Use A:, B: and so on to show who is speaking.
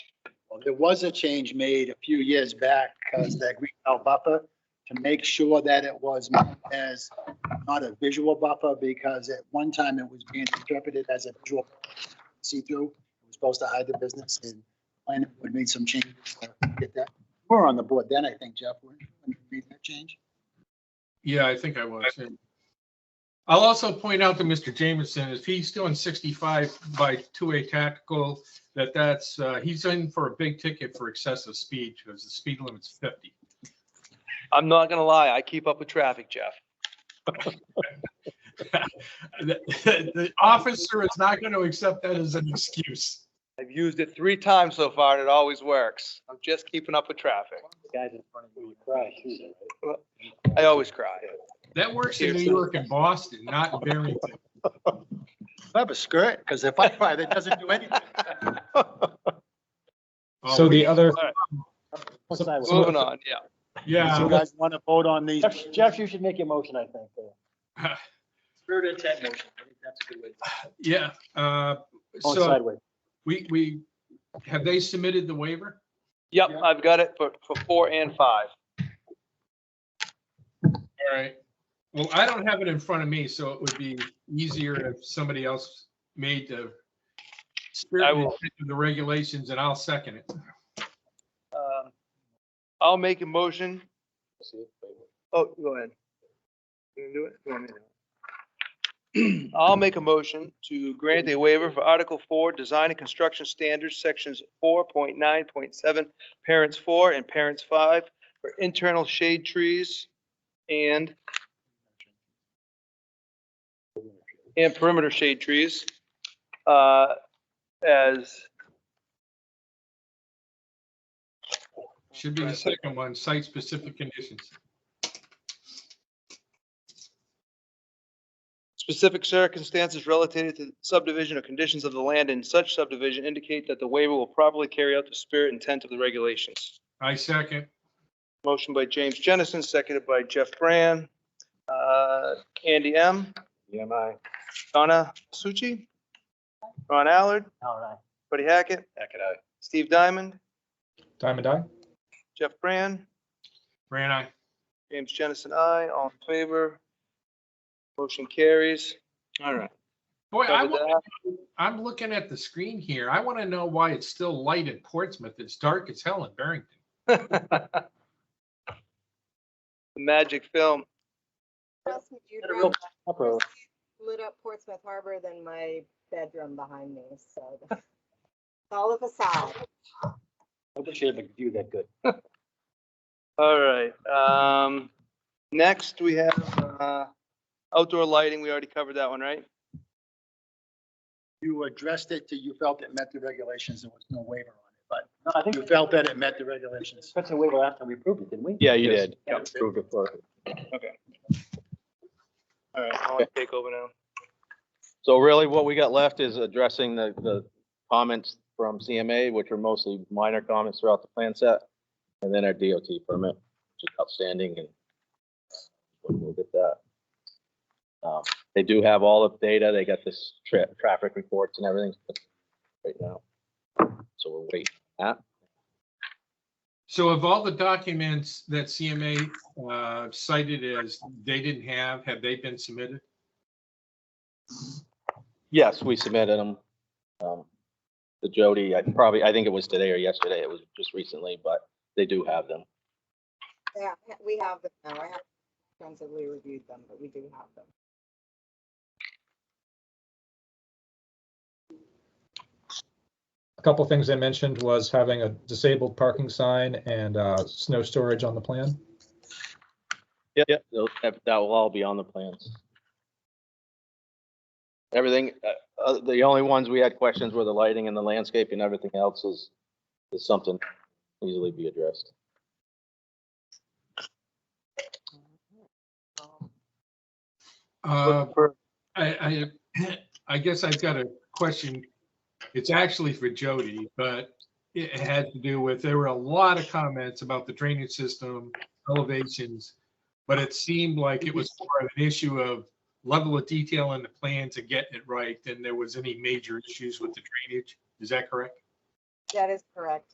A: Well, There was a change made a few years back,
B: Mm-hmm.
A: because that green belt buffer, to make sure that it was not as, not a visual buffer, because at one time it was being interpreted as a visual see-through. It was supposed to hide the business, and planning would made some changes to get that. We We're on the board then, I think, Jeff, when when you made that change.
C: Yeah, I think I was. yeah. I'll also point out to Mr. Jameson, if he's doing sixty-five by two-way tactical, that that's, uh, he's in for a big ticket for excessive speed because the speed limit's fifty.
D: I'm not gonna lie, I keep up with traffic, Jeff.
C: The the officer is not going to accept that as an excuse.
D: I've used it three times so far and it always works. I'm just keeping up with traffic.
B: Guys in front of you cry too, though, right?
D: I always cry.
C: That works in New York and Boston, not in Barrington.
A: I have a skirt, because if I buy, that doesn't do anything.
C: Oh,
E: So the other,
B: What's I
E: So-
D: Moving on, yeah.
A: You
C: Yeah,
A: guys want to vote on these?
B: Jeff, Jeff, you should make a motion, I think. uh,
F: Spirit of intent motion, I think that's a good way. to-
C: yeah. uh,
E: Oh,
B: Going
C: So
B: sideways.
C: we, we, have they submitted the waiver?
D: Yep, I've got it for, for four and five.
C: All right. Well, I don't have it in front of me, so it would be easier if somebody else made the spirit
D: I
C: and
D: will-
C: intent of the regulations and I'll second it.
D: Um, I'll make a motion. Oh, go ahead. You gonna do it? You want me to? I'll make a motion to grant a waiver for Article Four, Design and Construction Standards, Sections four point nine point seven, Parents Four and Parents Five for internal shade trees and and perimeter shade trees, uh, as
C: Should be the second one, site-specific conditions.
D: Specific circumstances related to subdivision or conditions of the land in such subdivision indicate that the waiver will properly carry out the spirit and intent of the regulations.
C: I second.
D: Motion by James Jennison, seconded by Jeff Brand. Uh, Andy M.
B: Yeah, my.
D: Donna Succi. Ron Allard,
B: All right.
D: Buddy Hackett,
F: Heck, and I-
D: Steve Diamond,
E: Diamond Eye?
D: Jeff Brand,
C: Ran I.
D: James Jennison, I. All in favor? Motion carries. All right.
C: Boy, I,
D: Covered
C: wa-
D: that.
C: I'm looking at the screen here. I want to know why it's still light in Portsmouth. It's dark as hell in Barrington.
D: The magic film.
G: Trust me, you'd
B: Gotta go proper.
G: rather lit up Portsmouth Harbor than my bedroom behind me, so. It's all of a side.
B: I wish you had a view that good.
D: All right, um, next we have, uh, outdoor lighting. We already covered that one, right?
A: You addressed it, to you felt it met the regulations, there was no waiver on it,
B: No, I
A: but
B: think
A: you felt that it met the regulations.
B: that's a waiver after we approved it, didn't we?
F: Yeah, you
E: Yes.
F: did.
A: Yeah.
F: Approved it for-
D: All right, I want to take over now.
F: So really what we got left is addressing the, the comments from CMA, which are mostly minor comments throughout the plan set. And then our DOT permit, which is outstanding and we'll we'll get that. Um, They do have all the data. They got this tra- traffic reports and everything right now. So we're waiting.
C: So of all the documents that CMA uh, cited as they didn't have, have they been submitted?
F: Yes, we submitted them. Um, The Jody, I probably, I think it was today or yesterday. It was just recently, but they do have them.
G: Yeah, we have them now. I haven't extensively reviewed them, but we do have them.
E: A couple things I mentioned was having a disabled parking sign and uh, snow storage on the plan.
F: Yep, yep, those- that, that will all be on the plans. Everything, uh, uh, the only ones we had questions were the lighting and the landscaping, everything else is, is something easily be addressed.
G: Um,
C: Uh,
D: For-
C: I, I, I guess I've got a question. It's actually for Jody, but it had to do with, there were a lot of comments about the drainage system, elevations. But it seemed like it was more of an issue of level of detail in the plans and getting it right than there was any major issues with the drainage. Is that correct?
G: That is correct.